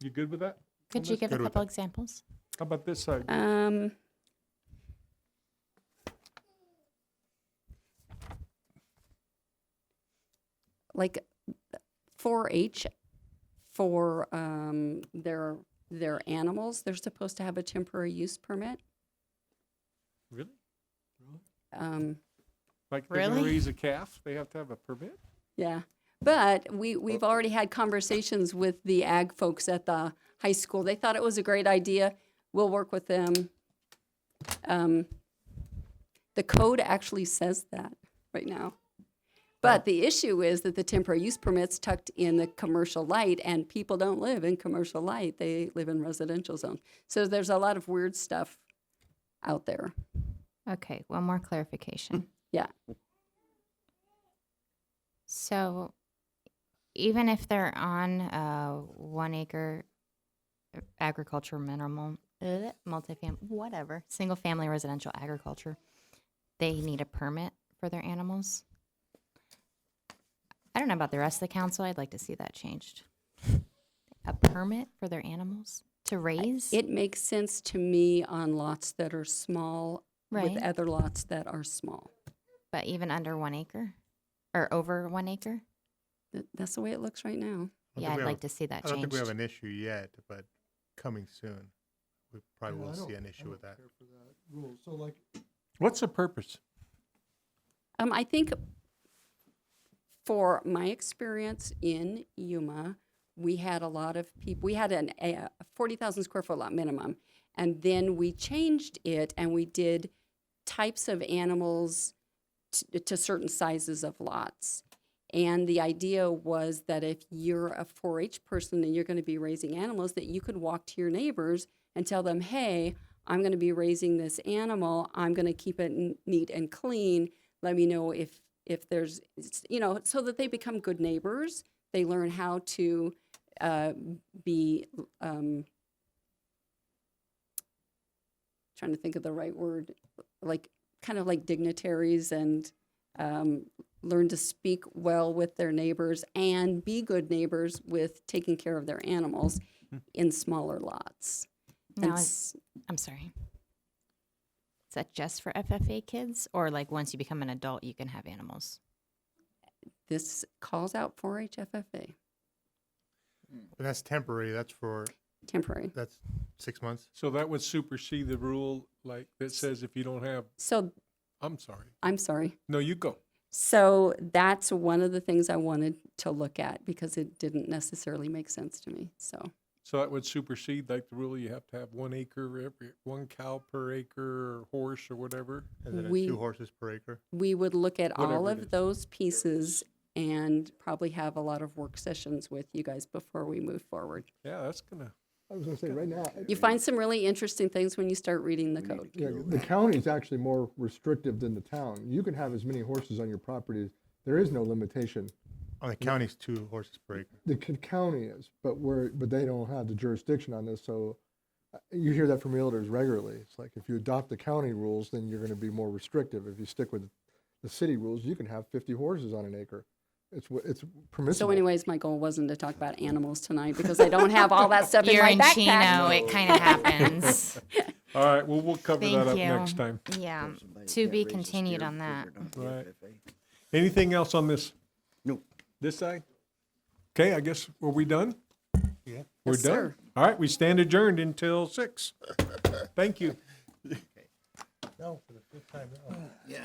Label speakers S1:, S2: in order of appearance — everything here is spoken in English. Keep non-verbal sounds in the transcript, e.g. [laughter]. S1: You good with that?
S2: Could you give a
S3: Good with
S2: couple Uh, examples?
S1: How about this side?
S4: Um, like 4-H for um, their their animals, they're supposed to have a temporary use permit.
S1: Really?
S4: Um,
S1: Like they're gonna
S2: Really?
S1: raise a calf, they have to have a permit?
S4: yeah, but we we've already had conversations with the ag folks at the high school. They thought it was a great idea. We'll work with them. Um, the code actually says that right now. But the issue is that the temporary use permit's tucked in the commercial light, and people don't live in commercial light. They live in residential zone. So there's a lot of weird stuff out there.
S2: Okay, one more clarification.
S4: [laughs] Yeah.
S2: So even if they're on a one acre uh, agriculture minimal, uh, multifamily, whatever, single family residential agriculture, they need a permit for their animals. I don't know about the rest of the council. I'd like to see that changed. [laughs] A permit for their animals to raise?
S4: It makes sense to me on lots that are small
S2: Right.
S4: with other lots that are small.
S2: But even under one acre or over one acre?
S4: Th- That's the way it looks right now.
S3: I don't
S2: Yeah,
S3: think
S2: I'd
S3: we have-
S2: like to see that
S3: I don't
S2: changed.
S3: think we have an issue yet, but coming soon, we probably will see an issue with that.
S5: Rules, so like,
S1: What's the purpose?
S4: Um, I think for my experience in Yuma, we had a lot of people, we had an, a 40,000 square foot lot minimum. And then we changed it and we did types of animals t- to certain sizes of lots. And the idea was that if you're a 4 H person and you're going to be raising animals, that you could walk to your neighbors and tell them, hey, I'm going to be raising this animal. I'm going to keep it n- neat and clean. Let me know if if there's it's- you know so that they become good neighbors. They learn how to uh, be um, trying to think of the right word, like kind of like dignitaries and um, learn to speak well with their neighbors and be good neighbors with taking care of their animals in smaller lots. And
S2: Now, is-
S4: s-
S2: I'm sorry. Is that just for FFA kids or like once you become an adult, you can have animals?
S4: this calls out 4-H FFA,
S3: But that's temporary, that's for,
S4: temporary.
S3: that's six months.
S1: So that would supersede the rule like that says if you don't have,
S4: So
S1: I'm sorry.
S4: I'm sorry.
S1: No, you go.
S4: So that's one of the things I wanted to look at because it didn't necessarily make sense to me. So
S1: So that would supersede like the rule you have to have one acre, every, one cow per acre or horse or whatever.
S3: Is it
S4: We-
S3: at two horses per acre?
S4: we would look at all
S1: Whatever it is.
S4: of those pieces and probably have a lot of work sessions with you guys before we move forward.
S1: Yeah, that's gonna,
S5: I was gonna say, right now,
S4: You find some really interesting things when you start reading the code.
S5: yeah, the county is actually more restrictive than the town. You can have as many horses on your property, there is no limitation.
S3: On the county's two horses per acre.
S5: The c- county is, but we're, but they don't have the jurisdiction on this, so uh, you hear that from realtors regularly. It's like, if you adopt the county rules, then you're gonna be more restrictive. If you stick with the city rules, you can have fifty horses on an acre. It's, wh- it's permissible.
S4: So anyways, my goal wasn't to talk about animals tonight because I don't have all that stuff in
S2: You're
S4: my
S2: in Chino,
S4: backpack.
S2: it kind [laughs] of happens.
S1: all right, well, we'll cover that
S2: Thank
S1: up
S2: you.
S1: next time.
S2: Yeah,
S6: Somebody
S2: to
S6: can't
S2: be
S6: raise a
S2: continued
S6: steer
S2: on that.
S6: because they're not the FFA.
S1: Anything else on this?
S6: Nope.
S1: This side? Okay, I guess, were we done?
S3: Yeah.
S1: We're
S4: Yes,
S1: done?
S4: sir.
S1: All right, we stand adjourned until six. Thank you.
S3: No, for the fifth time, no.
S6: Yeah.